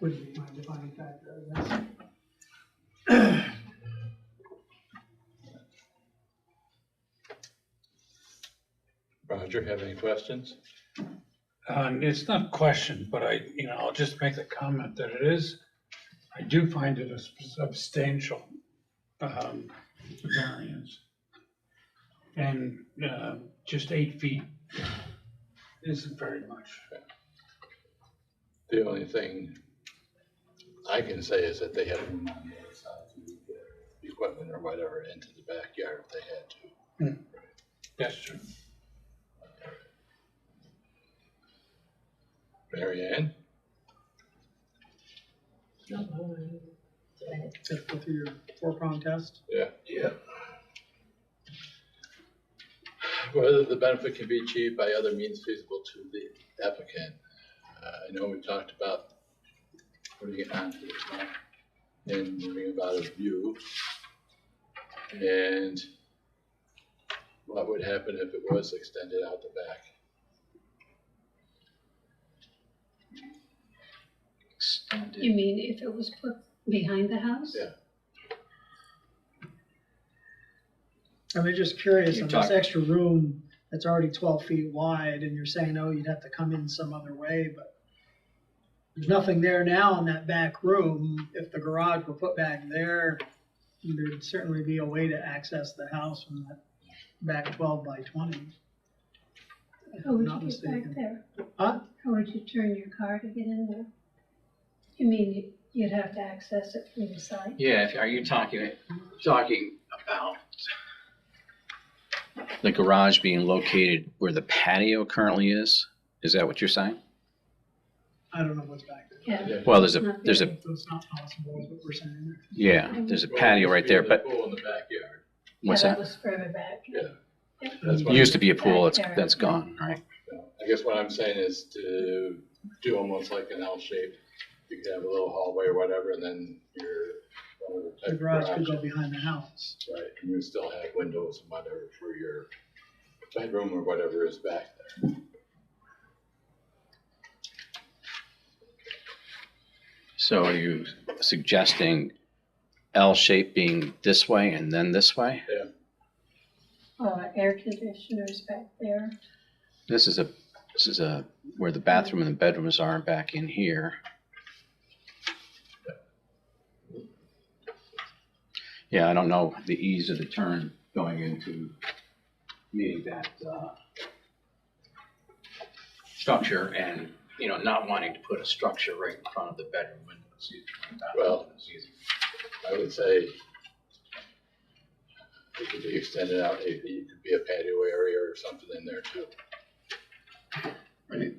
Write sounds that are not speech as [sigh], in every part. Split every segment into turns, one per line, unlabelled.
would be my defining factor, I guess.
Roger, have any questions?
Um, it's not questioned, but I, you know, I'll just make the comment that it is, I do find it a substantial, um, variance. And, uh, just eight feet isn't very much.
The only thing I can say is that they had room on the other side to get equipment or whatever into the backyard if they had to.
That's true.
Mary Ann,
Just go through your four prong test.
whether the benefit can be achieved by other means feasible to the applicant. Uh, I know we talked about putting it onto the plan and moving about a view. And what would happen if it was extended out the back?
You mean if it was put behind the house?
Yeah.
I'm just curious
You're
on this
talking-
extra room that's already twelve feet wide and you're saying, oh, you'd have to come in some other way, but there's nothing there now in that back room. If the garage were put back there, there'd certainly be a way to access the house from that back twelve by twenty. If
How
I'm
would
not
you Oh, get back
mistaken.
there?
Huh?
How would you turn your car to get in there? You mean you- you'd have to access it from the side?
Yeah, if- are you talking, talking about?
The garage being located where the patio currently is? Is that what you're saying?
I don't know what's back there.
Yeah.
Well, there's a, there's a,
So it's not possible, is what we're saying.
yeah, there's a patio right there, but
Pool in the backyard.
Yeah,
what's
that
that?
was further back.
Yeah.
Yeah.
That's
It
what,
used to be a pool, it's, that's gone, right?
I guess what I'm saying is to do almost like an L shape. You could have a little hallway or whatever, and then your. uh,
The garage could go behind the house.
Right, and you still have windows and whatever for your bedroom or whatever is back there.
So are you suggesting L shape being this way and then this way?
Uh, air conditioners back there.
This is a, this is a, where the bathroom and the bedrooms are back in here. Yeah, I don't know the ease of the turn going into meeting that, uh, structure and, you know, not wanting to put a structure right in front of the bedroom window. It's easy.
Well- I would say it could be extended out, it it could be a patio area or something in there too.
I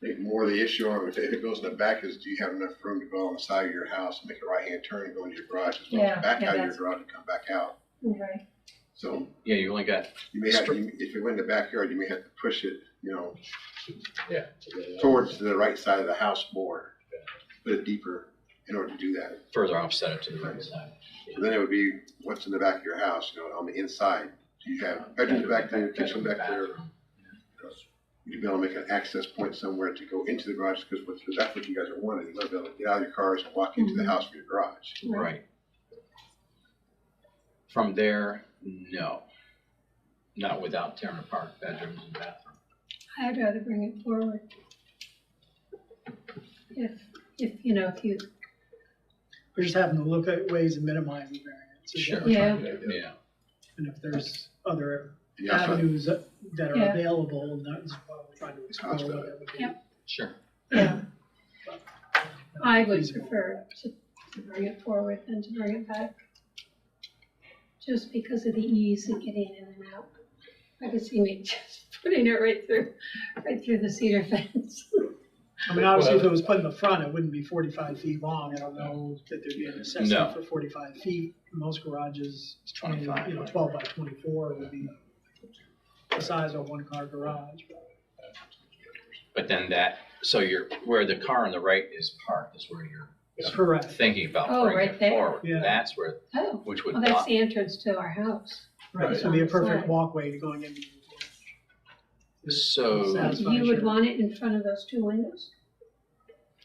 think more the issue on if it goes in the back is do you have enough room to go on the side of your house, make a right hand turn and go into your garage as well
Yeah,
as back
yeah,
out of your
that's-
garage and come back out.
Right.
So
Yeah, you only got
you may have, to if you went in the backyard, you may have to push it, you know,
Yeah. so then-
towards the right side of the house more. Put it deeper in order to do that.
further offset up to the right side.
So then it would be what's in the back of your house, you know, on the inside. So you have bedrooms back there, kitchen back there. You'd be able to make an access point somewhere to go into the garage because that's what you guys are wanting. You want to be able to get out of your cars and walk
Mm-hmm.
into the house from your garage.
Right. From there, no. Not without tearing apart bedrooms and bathroom.
I'd rather bring it forward. If, if, you know, if you,
We're just having to look at ways of minimizing variance. is what we're
Sure.
yeah,
Yeah.
And if there's other
And you also-
avenues that are
Yeah.
available, that's what we're trying to explore.
How's that?
what that would be.
Yep.
Sure.
yeah. I would
Feasible.
prefer to to bring it forward than to bring it back. Just because of the ease of getting in and out. I could see me [laughs] just putting it right through, right through the cedar fence. [laughs]
I mean, obviously, if
Well-
it was put in the front, it wouldn't be forty-five feet long. I don't know that there'd be a necessity
No.
for forty-five feet. Most garages,
It's
I mean, you know,
twenty-five.
twelve by twenty-four would be the size of a one-car garage.
But then that, so you're, where the car on the right is parked is where you're
Correct,
thinking about
Oh,
bringing
right
it
there.
forward.
Yeah.
That's where,
Oh,
which would
well, that's
not,
the entrance to our house.
right, so it'd be a perfect walkway going into. the garage.
so,
e-
That's fine,
You would
sure.
want it in front of those two windows?